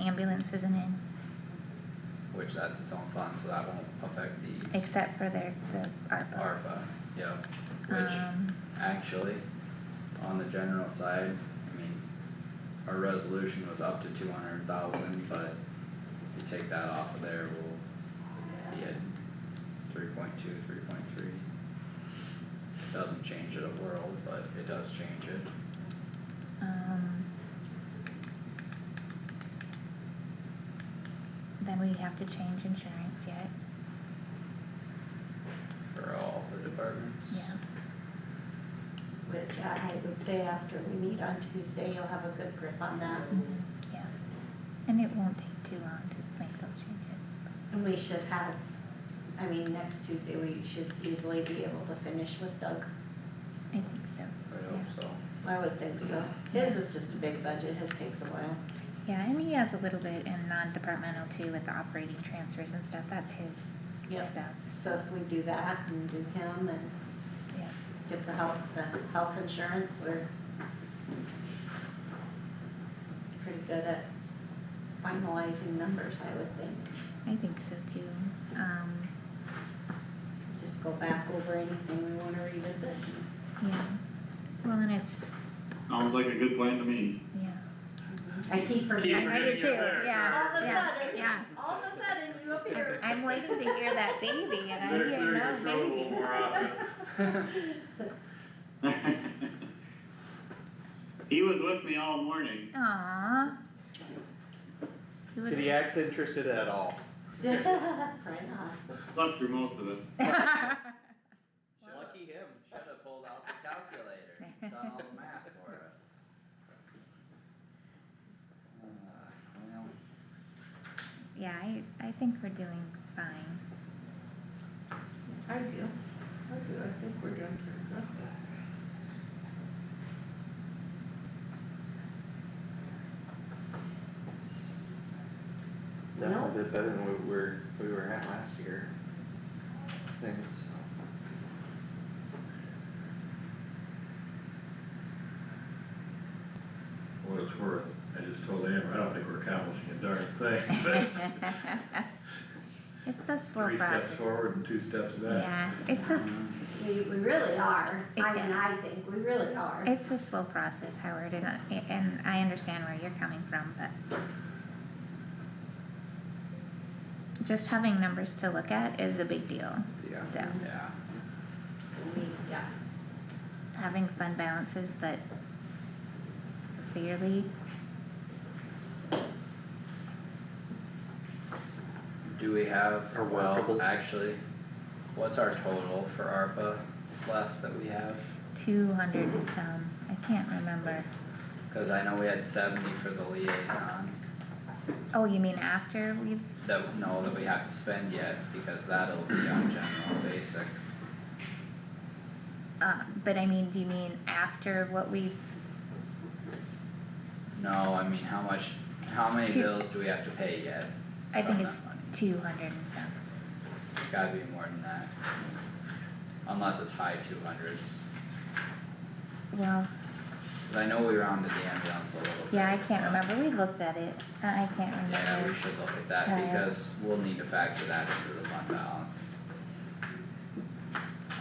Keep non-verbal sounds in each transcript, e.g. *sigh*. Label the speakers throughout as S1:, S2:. S1: ambulance isn't in,
S2: which that's its own fund, so that won't affect these
S1: except for their, the ARPA.
S2: ARPA, yep. Which
S1: Um,
S2: actually, on the general side, I mean, our resolution was up to two hundred thousand, but if you take that off of there, we'll be at three point two, three point three. It Doesn't change it a world, but it does change it.
S1: um. Then we have to change insurance yet,
S2: For all the departments?
S1: yeah.
S3: Which I I would say after we meet on Tuesday, you'll have a good grip on that.
S1: Mm-hmm. Yeah, and it won't take too long to make those changes.
S3: And we should have, I mean, next Tuesday, we should easily be able to finish with Doug.
S1: I think so.
S2: I hope so.
S3: I would think so. His is just a big budget, his takes a while.
S1: Yeah, and he has a little bit in non-departmental too with the operating transfers and stuff, that's his
S3: Yep.
S1: stuff,
S3: So if we do that and do him and
S1: yeah.
S3: get the health, the health insurance, we're pretty good at finalizing numbers, I would think.
S1: I think so too. Um,
S3: Just go back over anything we wanna revisit.
S1: yeah, well, and it's,
S4: Sounds like a good plan to me.
S1: yeah.
S3: I keep forgetting.
S1: I do too,
S3: All of
S1: yeah,
S3: a
S1: yeah,
S3: sudden,
S1: yeah.
S3: all of a sudden, you appear. *laughs*
S1: I'm waiting to hear that baby and I
S5: Better
S1: hear
S5: clear
S1: no
S5: your throat a little
S1: baby.
S5: more often.
S4: *laughs* He was with me all morning.
S1: Aww. It was,
S6: Did
S1: *laughs*
S6: he act interested at all?
S3: Right on.
S4: Slept through most of it.
S2: Lucky him, should've pulled out the calculator, done all the math for us. Uh, well,
S1: yeah, I, I think we're doing fine.
S3: I do, I do, I think we're doing pretty good.
S6: Definitely did better than we were, we were at last year. Things.
S5: What it's worth, I just told Amber, I don't think we're accomplishing a darn thing, *laughs* but
S1: It's a slow
S5: three
S1: process.
S5: steps forward uh, uh-huh. and two steps back.
S1: Yeah, it's a, s-
S6: Mm-hmm.
S3: We, we really are, I
S1: Yeah.
S3: mean, I think, we really are.
S1: it's a slow process, Howard, and, I- and I understand where you're coming from, but. Just having numbers to look at is a big deal,
S6: Yeah.
S1: so
S2: Yeah,
S3: We, yeah,
S1: having fund balances that fairly,
S2: do we have,
S6: Are
S2: well,
S6: workable.
S2: actually, what's our total for ARPA left that we have?
S1: two hundred and some, I can't remember.
S2: Cause I know we had seventy for the liaison,
S1: Oh, you mean after we've,
S2: that, no, that we have to spend yet, because that'll be on general basic.
S1: uh, but I mean, do you mean after what we've,
S2: No, I mean, how much, how many
S1: Two-
S2: bills do we have to pay yet?
S1: I think
S2: from
S1: it's
S2: that money?
S1: two hundred and some,
S2: It's gotta be more than that. Unless it's high two hundreds.
S1: well.
S2: Cause I know we rounded the ambulance a little bit.
S1: Yeah, I can't
S2: but-
S1: remember, we looked at it, I I can't
S2: Yeah, we
S1: remember,
S2: should look at that
S1: Yeah.
S2: because we'll need to factor that into the fund balance.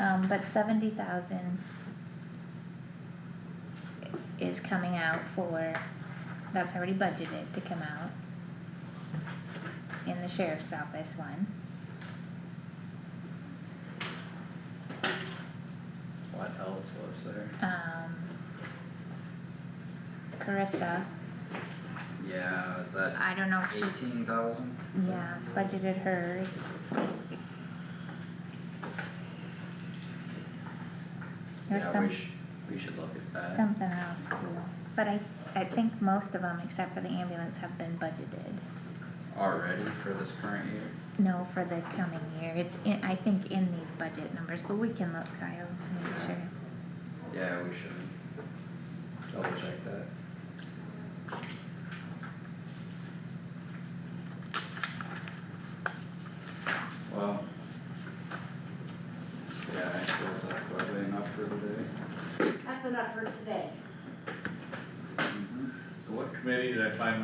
S1: um, but seventy thousand is coming out for, that's already budgeted to come out in the sheriff's office one,
S2: What else was there?
S1: um. Carissa,
S2: Yeah, is that
S1: I don't know if she,
S2: eighteen thousand?
S1: yeah, budgeted hers, There's
S2: Yeah,
S1: some-
S2: we sh- we should look at that.
S1: something else too, but I, I think most of them, except for the ambulance, have been budgeted.
S2: Already for this current year?
S1: No, for the coming year, it's in, I think in these budget numbers, but we can look, Kyle, to make sure.
S2: Yeah, we should double check that.